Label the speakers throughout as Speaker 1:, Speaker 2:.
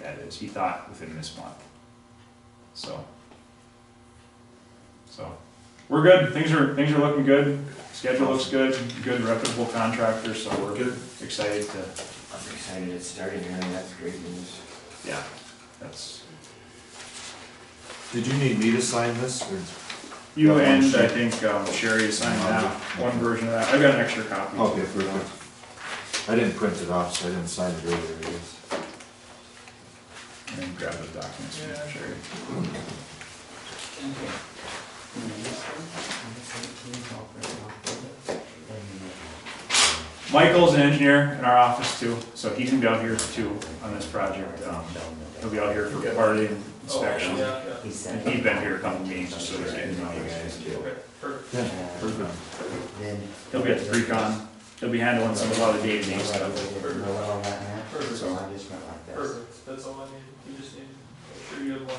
Speaker 1: that is, he thought within this month. So. So, we're good, things are, things are looking good, schedule looks good, good reputable contractor, so we're
Speaker 2: Good.
Speaker 1: excited to,
Speaker 3: I'm excited it's starting here, and that's great news.
Speaker 1: yeah, that's.
Speaker 2: Did you need me to sign this, or?
Speaker 1: You
Speaker 2: Got one
Speaker 1: and I
Speaker 2: sheet.
Speaker 1: think um, Sherry assigned
Speaker 2: Yeah.
Speaker 1: that, one version of that, I've got an extra copy.
Speaker 2: Okay, perfect. I didn't print it off, so I didn't sign it earlier, I guess.
Speaker 1: And grab the documents from Sherry. Michael's an engineer in our office too, so he's gonna be out here too on this project. Um, He'll be out here for part of the
Speaker 2: Oh,
Speaker 1: inspection.
Speaker 3: He said.
Speaker 1: And he's been here a couple meetings, so he's getting to know you guys.
Speaker 2: Yeah,
Speaker 3: Uh,
Speaker 2: perfect.
Speaker 3: Then.
Speaker 1: He'll be at the pre-con, he'll be handling some of the other day-to-day stuff.
Speaker 3: Perfect. So I just went like this.
Speaker 4: Perfect, that's all I need, you just need, make sure you have one. of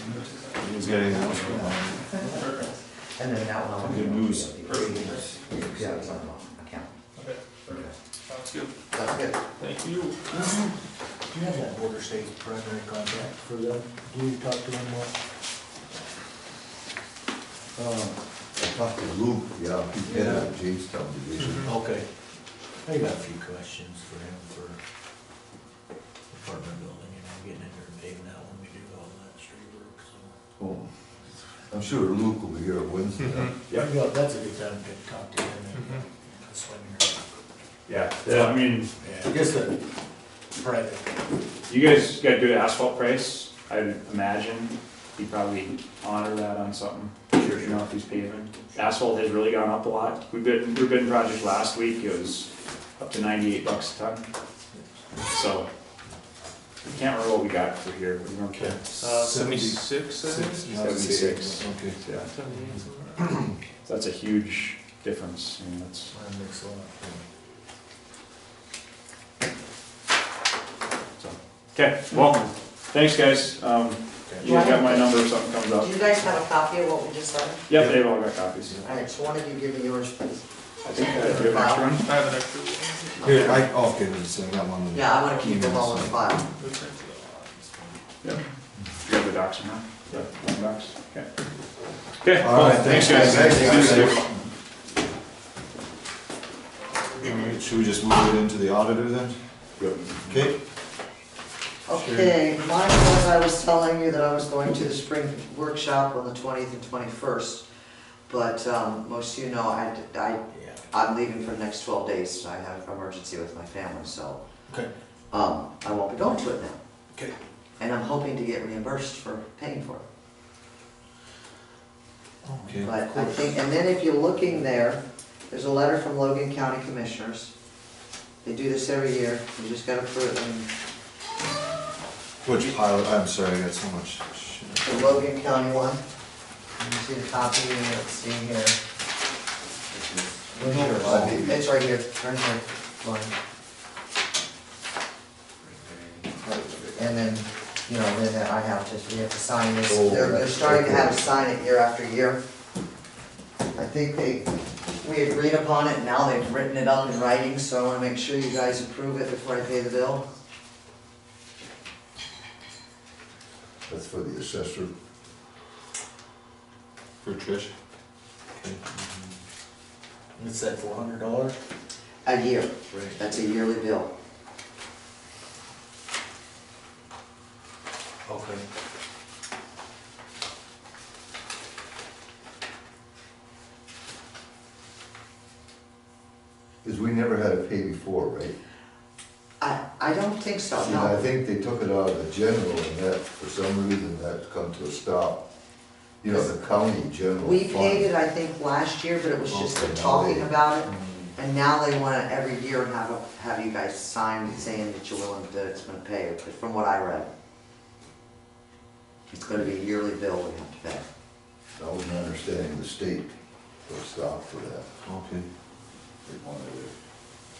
Speaker 4: the nurses on.
Speaker 2: You guys got anything else? Um,
Speaker 4: Perfect,
Speaker 3: And then that one.
Speaker 2: Good news.
Speaker 4: perfect,
Speaker 3: Yeah, it's on the account.
Speaker 4: okay, sounds good,
Speaker 3: That's good.
Speaker 4: thank you.
Speaker 5: Do you have that border state primary contact for them? Do you talk to them more?
Speaker 6: Uh,
Speaker 5: Um,
Speaker 6: I talked to Luke, yeah, he's head of Jamestown Division.
Speaker 5: Okay. I got a few questions for him for apartment building, you know, getting in there and paving that when we do all that street work, so.
Speaker 6: Oh, I'm sure Luke will be here Wednesday.
Speaker 5: Yeah. That's a good time to talk to him and that's when you're-
Speaker 1: Yeah, so, I mean,
Speaker 5: Yeah, I guess the private.
Speaker 1: you guys got good asphalt price. I would imagine he probably honor that on something, sure, you know, if he's paving. Asphalt has really gone up a lot. We've been, we've been project last week, it was up to ninety-eight bucks a ton. So, I can't remember what we got for here, we remember.
Speaker 7: Uh, seventy-six, I think?
Speaker 2: Six,
Speaker 1: Seventy-six.
Speaker 2: Okay.
Speaker 1: Yeah,
Speaker 7: Seventy-eight, somewhere.
Speaker 1: so that's a huge difference, I mean, that's.
Speaker 5: Mine makes a lot. yeah.
Speaker 1: Okay, welcome. Thanks, guys. Um, you guys got my number if something comes
Speaker 8: Do
Speaker 1: up.
Speaker 8: you guys have a copy of what we just signed?
Speaker 1: Yep, they've all got copies.
Speaker 8: All right, so why don't you give me yours, please?
Speaker 1: I think I do have an extra one.
Speaker 4: I have an extra one.
Speaker 2: Here, I, oh, okay, this, I got one. of the
Speaker 8: Yeah, I wanna keep them all in
Speaker 2: emails.
Speaker 8: file.
Speaker 4: Let's check it out.
Speaker 1: Yep. You have the docs in there? Yep. Docs, okay. Okay,
Speaker 2: All right,
Speaker 1: well, thanks, guys.
Speaker 2: thanks, guys.
Speaker 1: See you soon.
Speaker 2: All right, Should we just move it into the auditor then? Okay,
Speaker 8: Okay, mine was, I was telling you that I was going to the spring workshop on the twentieth and twenty-first, but, um, most of you know, I, I,
Speaker 5: Yeah.
Speaker 8: I'm leaving for the next twelve days, I have an emergency with my family, so,
Speaker 5: Okay.
Speaker 8: um, I won't be going to it now.
Speaker 5: Okay.
Speaker 8: And I'm hoping to get reimbursed for paying for it.
Speaker 2: okay, of
Speaker 8: But I
Speaker 2: course.
Speaker 8: think, and then if you're looking there, there's a letter from Logan County Commissioners. They do this every year, you just gotta put it in
Speaker 2: Which pile, I'm sorry, I got so much shit.
Speaker 8: the Logan County one. You see the copy, and it's in here. Where's yours?
Speaker 6: Oh.
Speaker 8: It's right here, turn here, Lauren. And then, you know, then I have to, we have to sign this,
Speaker 6: Oh,
Speaker 8: they're, they're
Speaker 6: that's
Speaker 8: starting to have
Speaker 6: okay.
Speaker 8: to sign it year after year. I think they, we agreed upon it, now they've written it up in writing, so I wanna make sure you guys approve it before I pay the bill.
Speaker 6: That's for the assessor.
Speaker 2: For Trish?
Speaker 5: It's that four hundred dollar?
Speaker 8: A year,
Speaker 5: Right.
Speaker 8: that's a yearly bill.
Speaker 5: Okay.
Speaker 6: Because we never had to pay before, right?
Speaker 8: I, I don't think so,
Speaker 6: And I
Speaker 8: no.
Speaker 6: think they took it out of the general and that, for some reason, that's come to a stop. You know, the county general.
Speaker 8: We paid it,
Speaker 6: fund.
Speaker 8: I think, last year, but it was just the
Speaker 6: Okay, now
Speaker 8: talking
Speaker 6: they- Mm.
Speaker 8: about it. And now they wanna every year have, a- have you guys sign saying that you're willing, that it's gonna pay, but from what I read. It's gonna be a yearly bill we have to pay.
Speaker 6: I wasn't understanding the state put a stop to that.
Speaker 2: Okay.
Speaker 6: They wanted it.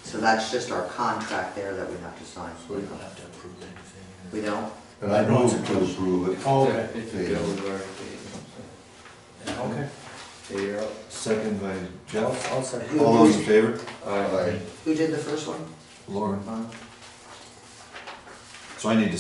Speaker 8: So that's just our contract there that we have to sign.
Speaker 5: We don't have to approve anything. or-
Speaker 8: We don't?
Speaker 6: And I moved to approve it.
Speaker 5: Oh, okay.
Speaker 3: If you go over, if
Speaker 5: Okay.
Speaker 3: you- if you're up.
Speaker 2: uh, Second by
Speaker 5: I'll,
Speaker 2: Jeff.
Speaker 5: I'll second.
Speaker 8: Who-
Speaker 2: All those in favor?
Speaker 6: Aye.
Speaker 8: Who did the first one?
Speaker 2: Lauren.
Speaker 8: Uh,
Speaker 2: So I need to